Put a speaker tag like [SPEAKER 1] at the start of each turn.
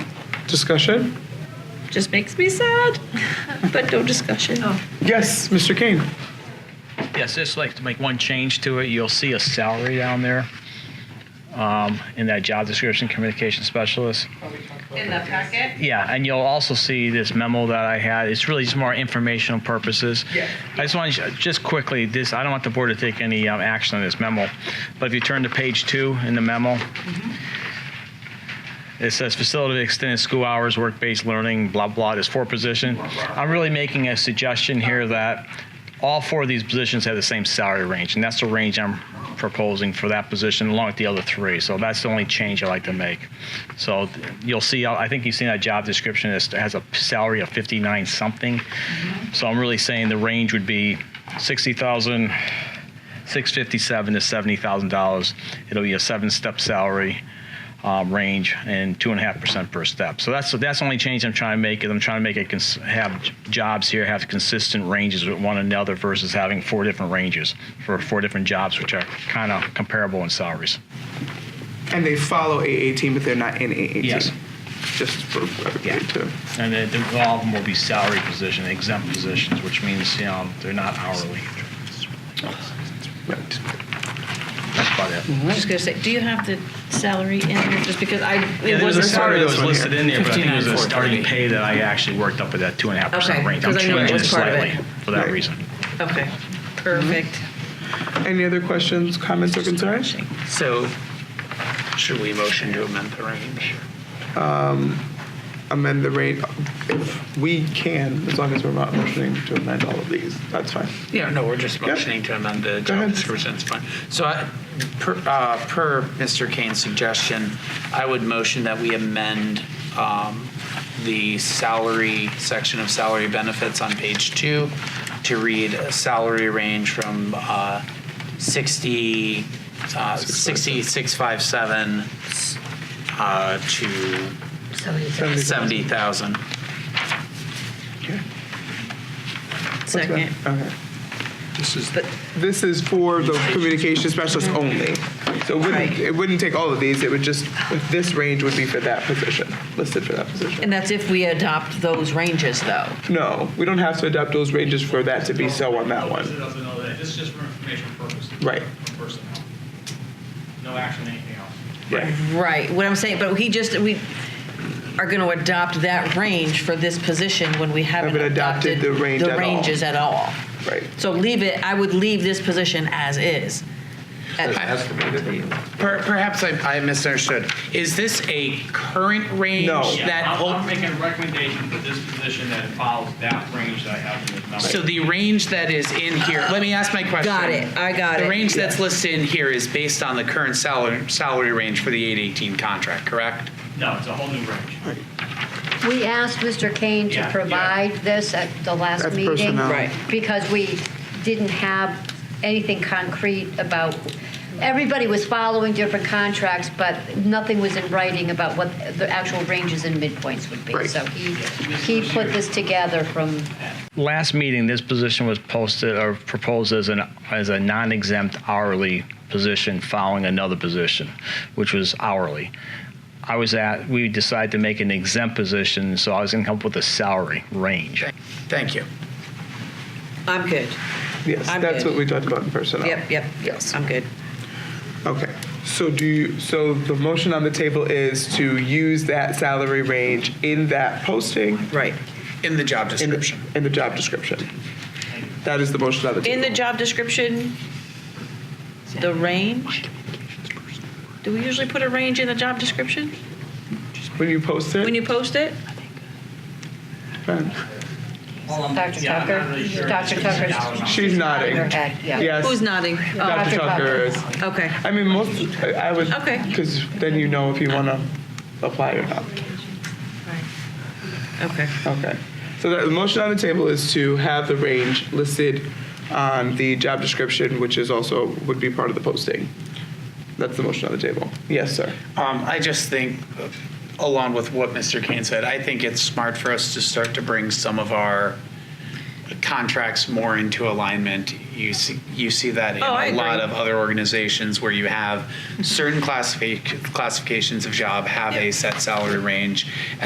[SPEAKER 1] Discussion?
[SPEAKER 2] Just makes me sad, but no discussion.
[SPEAKER 3] Oh,
[SPEAKER 1] Yes, Mr. Kane.
[SPEAKER 4] Yes, just like to make one change to it. You'll see a salary down there um, in that job description, communication specialist.
[SPEAKER 5] In the packet?
[SPEAKER 4] Yeah, and you'll also see this memo that I had. It's really just more informational purposes. Yeah. I just want to, just quickly, this, I don't want the board to take any um, action on this memo, but if you turn to page two in the memo, it says facility extended school hours, work-based learning, blah, blah, there's four position. I'm really making a suggestion here that all four of these positions have the same salary range, and that's the range I'm proposing for that position along with the other three. So that's the only change I like to make. So th- you'll see, I think you've seen that job description is- has a salary of 59 something. So I'm really saying the range would be 60,000, 657 to $70,000. It'll be a seven-step salary um, range and two and a half percent per step. So that's that's the only change I'm trying to make. Is I'm trying to make it cons- have j- jobs here have consistent ranges with one another versus having four different ranges for four different jobs, which are kind of comparable in salaries.
[SPEAKER 1] And they follow A18, but they're not in A18.
[SPEAKER 4] Yes.
[SPEAKER 1] Just for everybody
[SPEAKER 4] Yeah.
[SPEAKER 1] to-
[SPEAKER 4] And then then all of them will be salary position, exempt positions, which means you know they're not hourly.
[SPEAKER 1] right.
[SPEAKER 4] That's about it.
[SPEAKER 2] I was just gonna say, do you have the salary in here? Just because I,
[SPEAKER 4] Yeah,
[SPEAKER 2] it
[SPEAKER 4] there was a
[SPEAKER 2] wasn't.
[SPEAKER 4] salary that was
[SPEAKER 1] one
[SPEAKER 4] listed in there, but I think it was a
[SPEAKER 6] 59,430.
[SPEAKER 4] starting pay that I actually worked up at that two and a half percent
[SPEAKER 6] Okay,
[SPEAKER 4] range. I'm
[SPEAKER 6] 'cause I knew it
[SPEAKER 4] changing it
[SPEAKER 6] was part of it.
[SPEAKER 4] slightly for that
[SPEAKER 1] Right.
[SPEAKER 4] reason.
[SPEAKER 6] Okay.
[SPEAKER 2] Perfect.
[SPEAKER 1] Mm-hmm. Any other questions, comments, or concerns?
[SPEAKER 6] So should we motion to amend the range?
[SPEAKER 1] Um, Amend the rate, if we can, as long as we're not motioning to amend all of these, that's fine.
[SPEAKER 6] Yeah, no, we're just motioning to amend the
[SPEAKER 1] ahead.
[SPEAKER 6] job description, it's fine. So I- per, uh, per Mr. Kane's suggestion, I would motion that we amend um, the salary, section of salary benefits on page two to read a salary range from uh, 60, uh, 60, 657 uh, to 70,000.
[SPEAKER 1] What's that?
[SPEAKER 2] Second.
[SPEAKER 1] Okay.
[SPEAKER 7] This is,
[SPEAKER 1] This is for the communication specialist
[SPEAKER 6] Mm-hmm.
[SPEAKER 1] only. So it wouldn't,
[SPEAKER 2] Right.
[SPEAKER 1] it wouldn't take all of these, it would just, this range would be for that position, listed for that position.
[SPEAKER 3] And that's if we adopt those ranges, though.
[SPEAKER 1] No, we don't have to adopt those ranges for that to be so on that
[SPEAKER 8] This
[SPEAKER 1] one.
[SPEAKER 8] doesn't know that. This is just for information purposes.
[SPEAKER 1] Right.
[SPEAKER 8] For personnel. No action, anything else.
[SPEAKER 1] Right.
[SPEAKER 3] Right, what I'm saying, but he just, we are going to adopt that range for this position when we haven't
[SPEAKER 1] Haven't adopted
[SPEAKER 3] adopted the
[SPEAKER 1] the range at all.
[SPEAKER 3] ranges at all.
[SPEAKER 1] Right.
[SPEAKER 3] So leave it, I would leave this position as is. At-
[SPEAKER 6] Per- Perhaps I, I misunderstood. Is this a current range
[SPEAKER 1] No.
[SPEAKER 8] Yeah,
[SPEAKER 6] that?
[SPEAKER 8] I'm, I'm
[SPEAKER 6] ul-
[SPEAKER 8] making a recommendation for this position that follows that range that I have in this number.
[SPEAKER 6] So the range that is in here, let me ask my question.
[SPEAKER 3] Got it, I got
[SPEAKER 6] The
[SPEAKER 3] it.
[SPEAKER 6] range that's listed in here is based on the current salary, salary range for the 818 contract, correct?
[SPEAKER 8] no, it's a whole new range.
[SPEAKER 9] We asked Mr. Kane
[SPEAKER 8] Yeah,
[SPEAKER 9] to
[SPEAKER 8] yeah.
[SPEAKER 9] provide this at the last
[SPEAKER 1] That's
[SPEAKER 9] meeting.
[SPEAKER 1] personnel.
[SPEAKER 3] Right.
[SPEAKER 9] Because we didn't have anything concrete about, everybody was following different contracts, but nothing was in writing about what the actual ranges and midpoints would be.
[SPEAKER 1] Right.
[SPEAKER 9] So he, he put this together from
[SPEAKER 4] last meeting, this position was posted or proposed as an as a non-exempt hourly position following another position, which was hourly. I was at. We decided to make an exempt position, so I was going to come up with a salary range.
[SPEAKER 6] Thank you.
[SPEAKER 3] I'm good,
[SPEAKER 1] Yes,
[SPEAKER 3] I'm
[SPEAKER 1] that's
[SPEAKER 3] good.
[SPEAKER 1] what we talked about in personnel.
[SPEAKER 3] yep, yep, yes, I'm good.
[SPEAKER 1] Okay, so do you, so the motion on the table is to use that salary range in that posting
[SPEAKER 3] Right.
[SPEAKER 6] In the job
[SPEAKER 1] in
[SPEAKER 6] description.
[SPEAKER 1] the, in the job description. That is the motion on the table.
[SPEAKER 3] In the job description, the range? Do we usually put a range in the job description
[SPEAKER 1] When you post it?
[SPEAKER 3] when you post it?
[SPEAKER 1] Fine.
[SPEAKER 9] Dr.
[SPEAKER 8] Um, yeah, I'm not
[SPEAKER 9] Tucker.
[SPEAKER 8] really sure.
[SPEAKER 9] Dr. Tucker's.
[SPEAKER 1] She's nodding.
[SPEAKER 9] Her head, Yeah.
[SPEAKER 1] Yes.
[SPEAKER 3] Who's nodding? Oh,
[SPEAKER 1] Dr.
[SPEAKER 9] Dr.
[SPEAKER 1] Tucker
[SPEAKER 9] Tucker.
[SPEAKER 1] is.
[SPEAKER 3] okay.
[SPEAKER 1] I mean, most, I I would,
[SPEAKER 3] Okay.
[SPEAKER 1] because then you know if you want to apply or not.
[SPEAKER 3] Okay.
[SPEAKER 1] Okay. So the motion on the table is to have the range listed on the job description, which is also, would be part of the posting. That's the motion on the table. Yes, sir.
[SPEAKER 6] Um, I just think, along with what Mr. Kane said, I think it's smart for us to start to bring some of our contracts more into alignment. You see, you see that in
[SPEAKER 3] Oh, I
[SPEAKER 6] a lot
[SPEAKER 3] agree.
[SPEAKER 6] of other organizations where you have certain classifi- classifications of job have a set salary range,